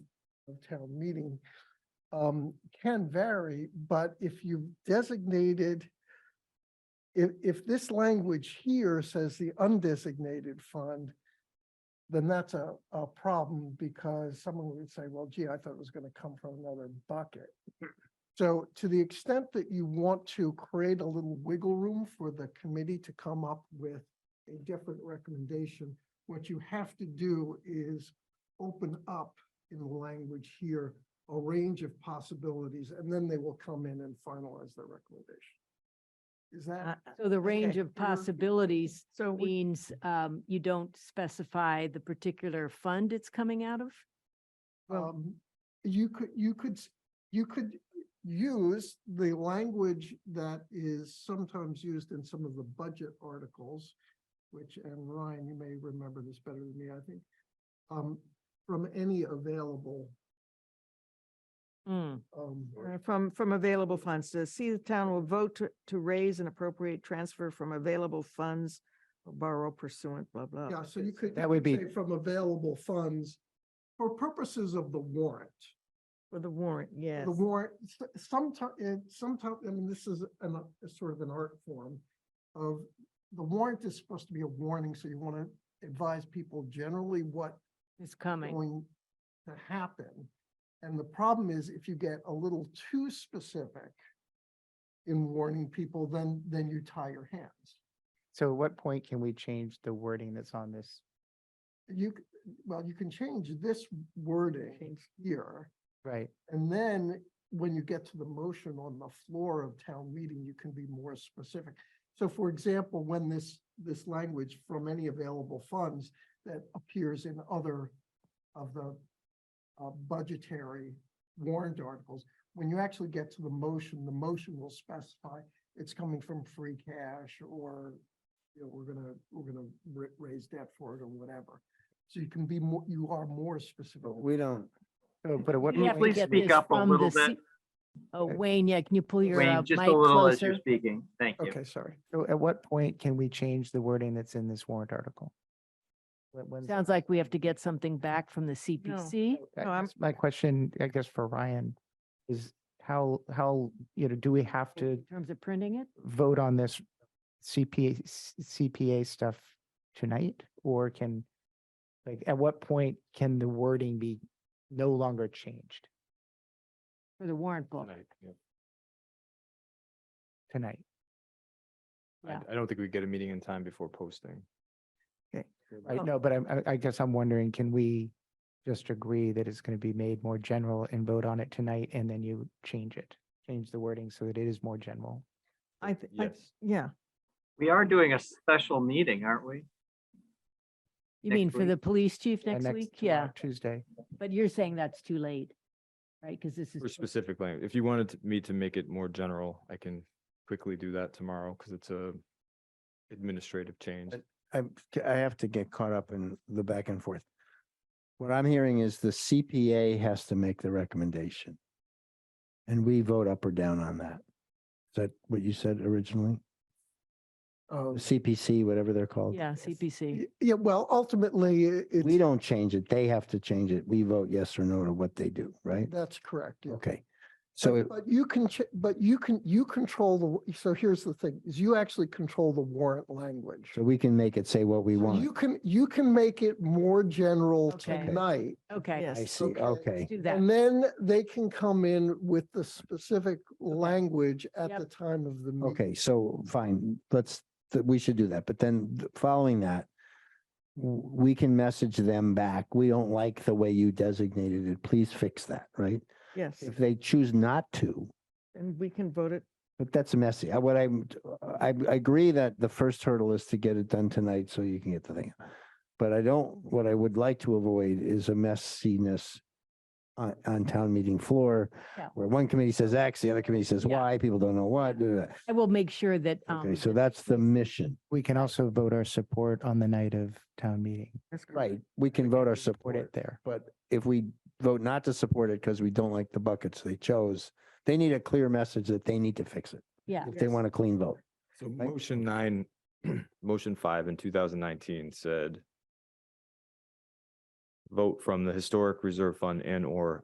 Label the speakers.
Speaker 1: of town meeting um, can vary, but if you designated, if, if this language here says the undesignated fund, then that's a, a problem because someone would say, well, gee, I thought it was going to come from another bucket. So to the extent that you want to create a little wiggle room for the committee to come up with a different recommendation, what you have to do is open up in the language here, a range of possibilities, and then they will come in and finalize their recommendation. Is
Speaker 2: Uh,
Speaker 1: that?
Speaker 3: So the range
Speaker 1: Okay.
Speaker 3: of possibilities
Speaker 1: So we
Speaker 3: means um, you don't specify the particular fund it's coming out of? Well-
Speaker 1: Um, you could, you could, s- you could use the language that is sometimes used in some of the budget articles, which, and Ryan, you may remember this better than me, I think, um, from any available,
Speaker 4: Hmm.
Speaker 3: Mm,
Speaker 1: um,
Speaker 2: Uh, From, from available funds to see the town will vote to, to raise an appropriate transfer from available funds or borrow pursuant, blah, blah.
Speaker 1: yeah, so you could.
Speaker 5: That
Speaker 1: you could
Speaker 5: would be-
Speaker 1: say From available funds for purposes of the warrant.
Speaker 2: For the warrant, yes.
Speaker 1: the warrant, sometimes, sometimes, eh, I mean, this is an, uh, a sort of an art form of, the warrant is supposed to be a warning, so you want to advise people generally what
Speaker 3: It's coming.
Speaker 1: going to happen. And the problem is if you get a little too specific in warning people, then, then you tie your hands.
Speaker 5: So at what point can we change the wording that's on this?
Speaker 1: You, c- well, you can change this wording here.
Speaker 5: Right,
Speaker 1: And then when you get to the motion on the floor of town meeting, you can be more specific. So for example, when this, this language from any available funds that appears in other of the uh, budgetary warrant articles, when you actually get to the motion, the motion will specify it's coming from free cash or, you know, we're gonna, we're gonna ra- raise debt for it or whatever. So you can be more, you are more specific.
Speaker 6: We don't,
Speaker 5: So, but at what?
Speaker 3: You have to
Speaker 5: point
Speaker 3: get
Speaker 5: can we-
Speaker 3: this
Speaker 4: speak up a
Speaker 3: from
Speaker 4: little
Speaker 3: the C-
Speaker 4: bit?
Speaker 3: Oh, Wayne, yeah, can you pull your uh,
Speaker 4: Wayne,
Speaker 3: mic
Speaker 4: just a little as you're
Speaker 3: closer?
Speaker 4: speaking. Thank you.
Speaker 1: Okay, sorry.
Speaker 5: so At what point can we change the wording that's in this warrant article? When- when's-
Speaker 3: Sounds like we have to get something back from the CPC.
Speaker 5: I
Speaker 2: No, I'm-
Speaker 5: guess My question, I guess for Ryan, is how, how, you know, do we have to
Speaker 3: In terms of printing it?
Speaker 5: vote on this CPA, s- CPA stuff tonight? Or can, like, at what point can the wording be no longer changed
Speaker 3: For the warrant book.
Speaker 5: tonight?
Speaker 3: Yeah.
Speaker 7: I, I don't think we get a meeting in time before posting.
Speaker 5: I
Speaker 2: Oh.
Speaker 5: know, but I'm- I, I guess I'm wondering, can we just agree that it's going to be made more general and vote on it tonight and then you change it? Change the wording so that it is more general?
Speaker 2: I, thi- I-
Speaker 7: Yes.
Speaker 2: yeah,
Speaker 4: We are doing a special meeting, aren't we?
Speaker 3: You
Speaker 4: Next
Speaker 3: mean for
Speaker 4: week.
Speaker 3: the police chief
Speaker 5: Yeah,
Speaker 3: next week?
Speaker 5: tomorrow,
Speaker 3: Yeah,
Speaker 5: Tuesday.
Speaker 3: but you're saying that's too late, right? Because this is.
Speaker 7: For specific language, if you wanted to- me to make it more general, I can quickly do that tomorrow because it's a administrative change.
Speaker 6: But- I, I have to get caught up in the back and forth. What I'm hearing is the CPA has to make the recommendation. And we vote up or down on that. Is that what you said originally?
Speaker 1: Um,
Speaker 6: CPC, whatever they're called?
Speaker 3: Yeah, CPC.
Speaker 1: Y- Yeah, well, ultimately, i-
Speaker 6: We
Speaker 1: it's,
Speaker 6: don't change it. They have to change it. We vote yes or no to what they do, right?
Speaker 1: that's correct. yeah.
Speaker 6: Okay. So
Speaker 1: But-
Speaker 6: it-
Speaker 1: But you can, ch- but you can, you control the, w- so here's the thing, is you actually control the warrant language.
Speaker 6: so we can make it say what we
Speaker 1: So
Speaker 6: want.
Speaker 1: You can, you can make it more general
Speaker 3: Okay.
Speaker 1: tonight.
Speaker 3: Okay,
Speaker 6: I
Speaker 2: yes.
Speaker 6: see. Okay.
Speaker 3: let's do that.
Speaker 1: And then they can come in with the specific language at
Speaker 3: Yep.
Speaker 1: the time of
Speaker 3: Mm-hmm.
Speaker 1: the meeting.
Speaker 6: Okay, so fine, let's, th- we should do that, but then th- following that. w- We can message them back. We don't like the way you designated it. Please fix that, right?
Speaker 2: yes.
Speaker 6: If they choose not to,
Speaker 2: And we can vote it.
Speaker 6: but that's messy. I, what I'm, I, I agree that the first hurdle is to get it done tonight so you can get the thing. But I don't, what I would like to avoid is a messiness on, on town meeting floor
Speaker 3: Yeah.
Speaker 6: where one committee says X, the other committee says
Speaker 3: Yeah.
Speaker 6: Y, people don't know what. da, da, da.
Speaker 3: I will make sure that.
Speaker 6: Okay,
Speaker 3: um,
Speaker 6: so that's the mission.
Speaker 5: We can also vote our support on the night of town meeting.
Speaker 2: That's correct.
Speaker 6: Right, we can vote our
Speaker 5: Support it
Speaker 6: support,
Speaker 5: there.
Speaker 6: but if we vote not to support it because we don't like the buckets they chose, they need a clear message that they need to fix it.
Speaker 3: Yeah.
Speaker 6: If they
Speaker 2: Yes.
Speaker 6: want a clean vote.
Speaker 7: So motion nine, motion five in two thousand nineteen said vote from the historic reserve fund and or